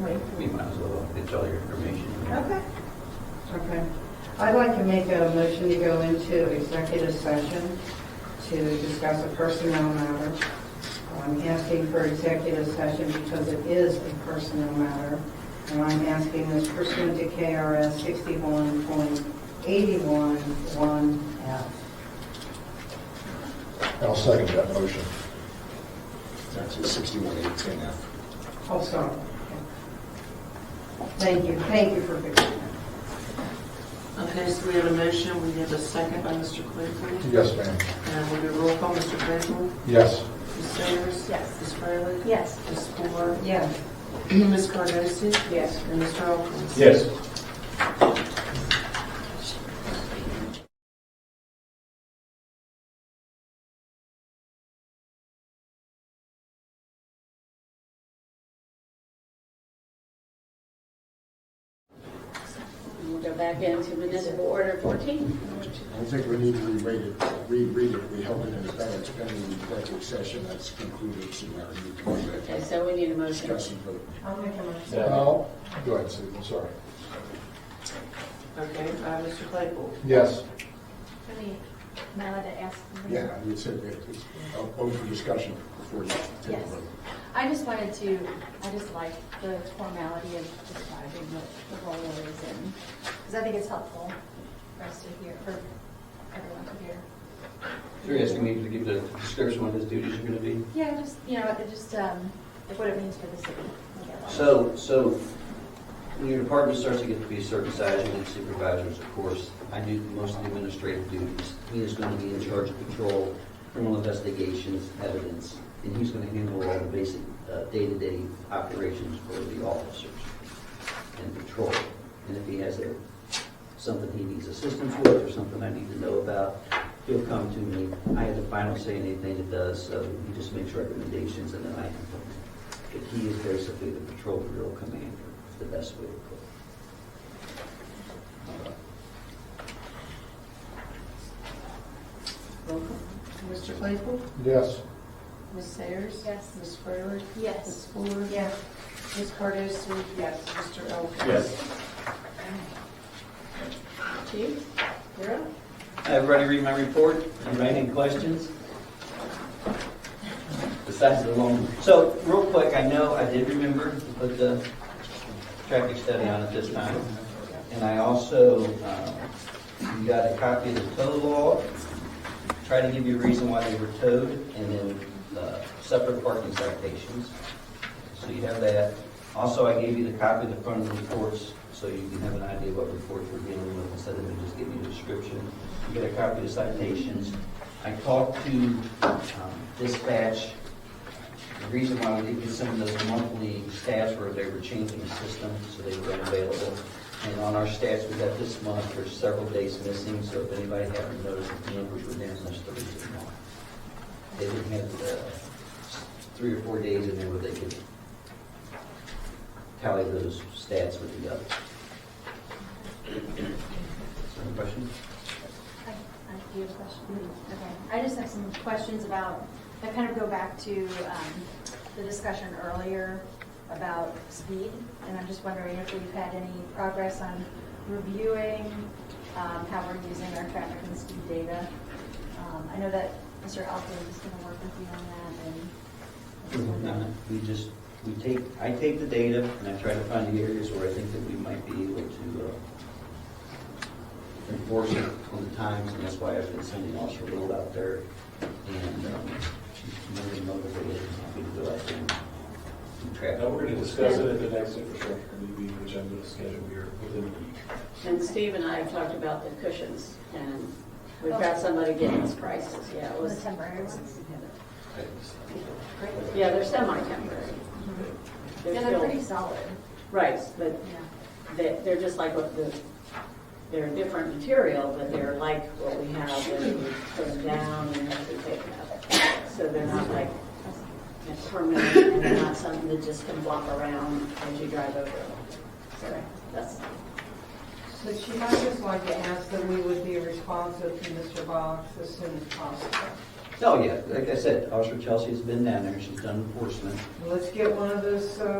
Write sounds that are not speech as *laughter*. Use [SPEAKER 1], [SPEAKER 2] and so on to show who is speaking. [SPEAKER 1] Wait.
[SPEAKER 2] We might as well, it's all your information.
[SPEAKER 1] Okay.
[SPEAKER 3] Okay. I'd like to make a motion to go into executive session to discuss a personnel matter. I'm asking for executive session because it is a personnel matter. And I'm asking this pursuant to KRS 61.811F.
[SPEAKER 4] I'll second that motion. It's actually 6118 now.
[SPEAKER 3] Oh, sorry. Thank you, thank you for fixing that.
[SPEAKER 1] Okay, so we have a motion, we have a second by Mr. Claypool.
[SPEAKER 4] Yes, ma'am.
[SPEAKER 1] And we'll do a roll call, Mr. Claypool,
[SPEAKER 4] Yes.
[SPEAKER 1] Ms. Sayers.
[SPEAKER 5] Yes.
[SPEAKER 1] Ms. Fryland.
[SPEAKER 5] Yes.
[SPEAKER 1] Ms. *clears throat* Moore.
[SPEAKER 3] Yes.
[SPEAKER 1] Ms. Cardosi.
[SPEAKER 5] Yes.
[SPEAKER 1] And Mr. Alkins.
[SPEAKER 4] Yes.
[SPEAKER 5] We'll go back into municipal order 14.
[SPEAKER 4] I think we need to re-read it, reread it. We held it in advance pending the executive session that's concluded, so now we need to go back
[SPEAKER 5] Okay,
[SPEAKER 4] and
[SPEAKER 5] so we need a motion.
[SPEAKER 4] discuss and vote.
[SPEAKER 3] I'll make a motion.
[SPEAKER 4] Well, go ahead, Sue, I'm sorry.
[SPEAKER 1] Okay, uh, Mr. Claypool.
[SPEAKER 4] Yes.
[SPEAKER 6] I mean, am I allowed to ask? something?
[SPEAKER 4] Yeah, you said we it's open for discussion before you take a
[SPEAKER 6] Yes.
[SPEAKER 4] vote.
[SPEAKER 6] I just wanted to, I just like the formality of describing what the role is and, because I think it's helpful for us to hear, for everyone to hear.
[SPEAKER 2] You're asking me to give the description what his duties are going to be?
[SPEAKER 6] Yeah, just, you know, it just, um, what it means for the city.
[SPEAKER 2] So, so when your department starts to get to be a certain size, you need supervisors, of course. I do most of the administrative duties. He is going to be in charge of patrol, criminal investigations, evidence, and he's going to handle all the basic uh, day-to-day operations for the officers and patrol. And if he has a- something he needs assistance with or something I need to know about, he'll come to me. I have the final say in anything it does, so he just makes recommendations and then I implement. But he is basically the patrol bureau commander, is the best way to put it.
[SPEAKER 1] Roll call. Mr. Claypool.
[SPEAKER 4] Yes.
[SPEAKER 1] Ms. Sayers.
[SPEAKER 6] Yes.
[SPEAKER 1] Ms. Fryland.
[SPEAKER 6] Yes.
[SPEAKER 1] Ms. Moore.
[SPEAKER 3] Yes.
[SPEAKER 1] Ms. Cardosi. Yes. Mr. Alkins.
[SPEAKER 5] Chief, you're up.
[SPEAKER 2] Everybody read my report? Anybody any questions? Besides the long, so real quick, I know I did remember to put the traffic study on at this time. And I also, um, you got a copy of the tow law. Try to give you a reason why they were towed and then uh, separate parking citations. So you have that. Also, I gave you the copy of the front of the reports, so you can have an idea what reports we're dealing with instead of me just giving you a description. You get a copy of the citations. I talked to um, dispatch. The reason why we didn't get some of those monthly stats were they were changing the system, so they were unavailable. And on our stats, we got this month, there's several days missing, so if anybody haven't noticed, the numbers were down, that's the reason why. They didn't have the three or four days in there where they could tally those stats with the others. Any questions?
[SPEAKER 6] I I do have a question. Okay. I just have some questions about, that kind of go back to um, the discussion earlier about speed, and I'm just wondering if we've had any progress on reviewing um, how we're using our traffic and speed data. Um, I know that Mr. Alford is going to work with you on that, and I just wondered-
[SPEAKER 2] We just, we take, I take the data and I try to find the areas where I think that we might be able to uh, enforce it on the times, and that's why I've been sending Officer Will out there. And um, she's really motivated, and happy to go out there and do
[SPEAKER 7] Now,
[SPEAKER 2] traffic.
[SPEAKER 7] we're going to discuss it at the next infrastructure committee meeting, which I'm going to schedule here within a week.
[SPEAKER 5] And Steve and I have talked about the cushions, and we've got somebody getting us prices, yeah, it
[SPEAKER 6] The
[SPEAKER 5] was,
[SPEAKER 6] temporary ones.
[SPEAKER 5] yeah, they're semi-temporary. They're
[SPEAKER 6] Yeah, they're
[SPEAKER 5] still-
[SPEAKER 6] pretty solid,
[SPEAKER 5] Right, but
[SPEAKER 6] yeah.
[SPEAKER 5] they- they're just like what the, they're a different material, but they're like what we have when we put them down and have to take them up. So they're not like a permanent, and they're not something that just can flop around as you drive over them. So that's,
[SPEAKER 3] So she might just like to ask that we would be responsive to Mr. Box as soon as possible.
[SPEAKER 2] Oh, yeah, like I said, Officer Chelsea's been down there, she's done enforcement.
[SPEAKER 3] Let's get one of those, uh,